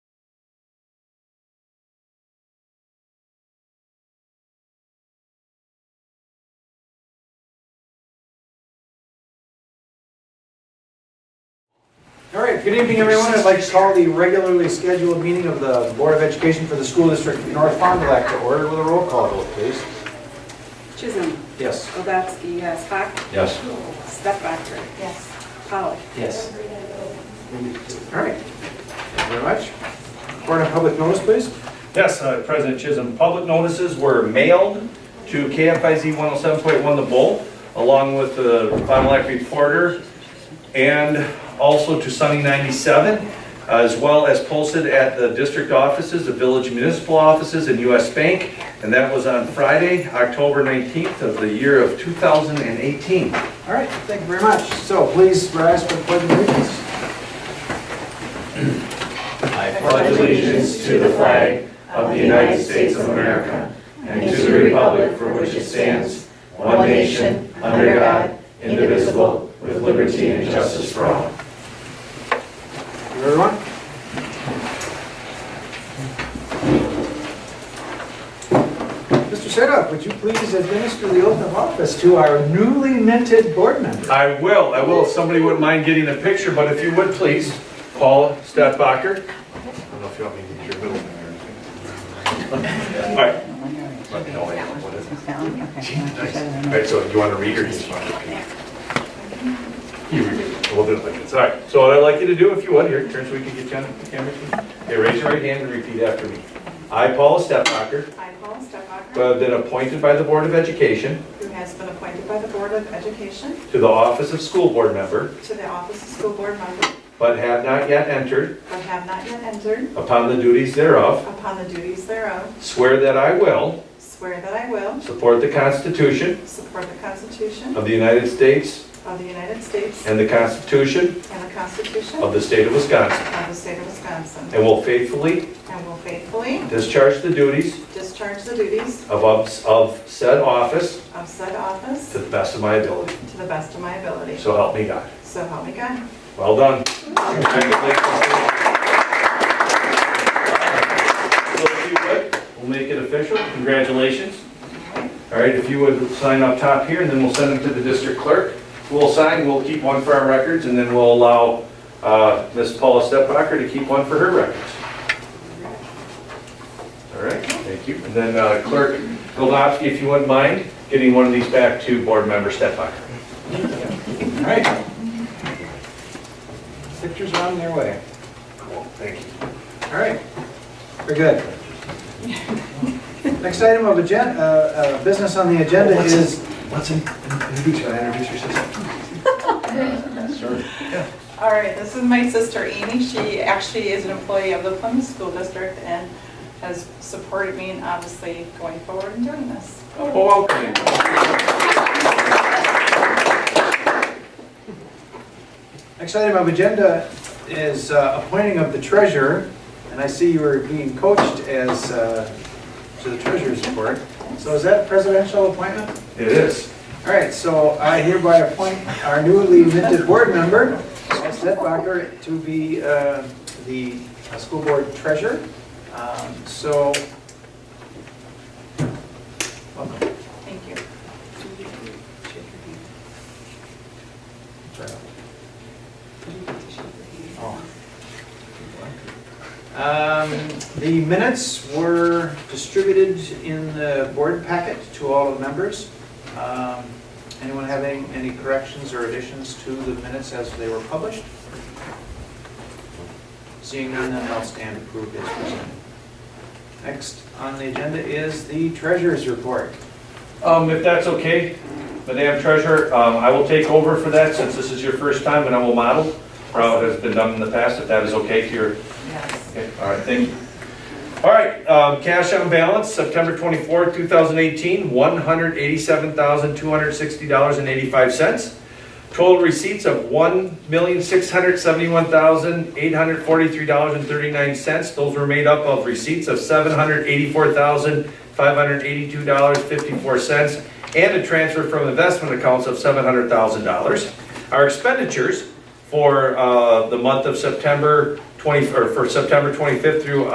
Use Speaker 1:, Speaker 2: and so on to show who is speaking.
Speaker 1: Good evening, everyone. I'd like to call the regularly scheduled meeting of the Board of Education for the School District of North Fond du Lac to order with a roll call vote, please.
Speaker 2: Chisholm.
Speaker 1: Yes.
Speaker 2: Obatsky, yes. Hack.
Speaker 3: Yes.
Speaker 2: Stephbacher. Yes. Pollock.
Speaker 1: Yes. All right. Thank you very much. Board of Public Notice, please.
Speaker 3: Yes, uh, President Chisholm, public notices were mailed to KFIZ 107.1 The Bull, along with the Fond du Lac Reporter, and also to Sunny 97, as well as posted at the district offices, the village municipal offices, and US Bank, and that was on Friday, October 19th of the year of 2018.
Speaker 1: All right, thank you very much. So please rise for the pledge of allegiance.
Speaker 4: I pledge allegiance to the flag of the United States of America and to the republic for which it stands, one nation, under God, indivisible, with liberty and justice for all.
Speaker 1: Thank you, Everyone? Mr. Setup, would you please administer the oath of office to our newly minted board member?
Speaker 3: I will, I will, if somebody wouldn't mind getting a picture, but if you would, please, Paula Stadtbacher. I don't know if you want me to get your middle name or anything. All right, let me know when- what is it? Nice. All right, so you want to read or you just want to repeat? You repeat, we'll do it like this, all right. So what I'd like you to do, if you would, here, turn so we can get you on the camera. too. Okay, raise your right hand and repeat after me. I, Paula Stadtbacher,
Speaker 5: I, Paul Stefbacher,
Speaker 3: who have been appointed by the Board of Education
Speaker 5: who has been appointed by the Board of Education
Speaker 3: to the office of school board member,
Speaker 5: to the office of school board member,
Speaker 3: but have not yet entered
Speaker 5: but have not yet entered
Speaker 3: Upon the duties thereof,
Speaker 5: upon the duties thereof,
Speaker 3: swear that I will
Speaker 5: swear that I will
Speaker 3: support the Constitution
Speaker 5: support the Constitution
Speaker 3: of the United States
Speaker 5: of the United States
Speaker 3: and the Constitution
Speaker 5: and the Constitution
Speaker 3: of
Speaker 5: of
Speaker 3: the State of Wisconsin,
Speaker 5: the state of Wisconsin,
Speaker 3: and will faithfully
Speaker 5: and will faithfully
Speaker 3: discharge the duties
Speaker 5: discharge the duties
Speaker 3: of of said office
Speaker 5: of said office
Speaker 3: to the best of my ability.
Speaker 5: to the best of my ability.
Speaker 3: So help me God.
Speaker 5: So help me God.
Speaker 3: Well done. Congratulations. So if you would, We'll make it official. Congratulations. All right, if you would sign up top here, and then we'll send them to the district clerk. We'll sign, we'll keep one for our records, and then we'll allow uh, Ms. Paula Stepbacher to keep one for her records. All right, thank you. And then uh, Clerk Golovsky, if you wouldn't mind, getting one of these back to Board Member Stepbacher.
Speaker 1: All right. Pictures are on their way.
Speaker 3: Cool, thank you.
Speaker 1: All right, we're good. Next item of agenda, uh, business on the agenda is,
Speaker 3: Let's in- introduce you, introduce yourself.
Speaker 5: All right, this is my sister Amy. She actually is an employee of the Plymouth School District and has supported me in obviously going forward and doing this.
Speaker 3: Oh, okay.
Speaker 1: next item of agenda is uh, appointing of the treasurer, and I see you are being coached as, uh, to the treasurer's report. So is that presidential appointment?
Speaker 3: It is.
Speaker 1: All right, so I hereby appoint our newly minted board member, Ms. Detbacher, to be uh, the uh, school board treasurer. Um, So, welcome.
Speaker 5: Thank you.
Speaker 1: Oh. Um, The minutes were distributed in the board packet to all the members. Um, Anyone having any corrections or additions to the minutes as they were published? Seeing none, then I'll stand approved as presented. Next on the agenda is the treasurer's report.
Speaker 3: Um, If that's okay, Madam Treasurer, um, I will take over for that since this is your first time and I will model how it has been done in the past, if that is okay to your
Speaker 5: Yes.
Speaker 3: Okay, all right, thank you. All right, um, cash on balance, September 24, 2018, $187,260.85. Total receipts of $1,671,843.39. Those were made up of receipts of $784,582.54 and a transfer from investment accounts of $700,000. Our expenditures for uh, the month of September 20, or for September 25th through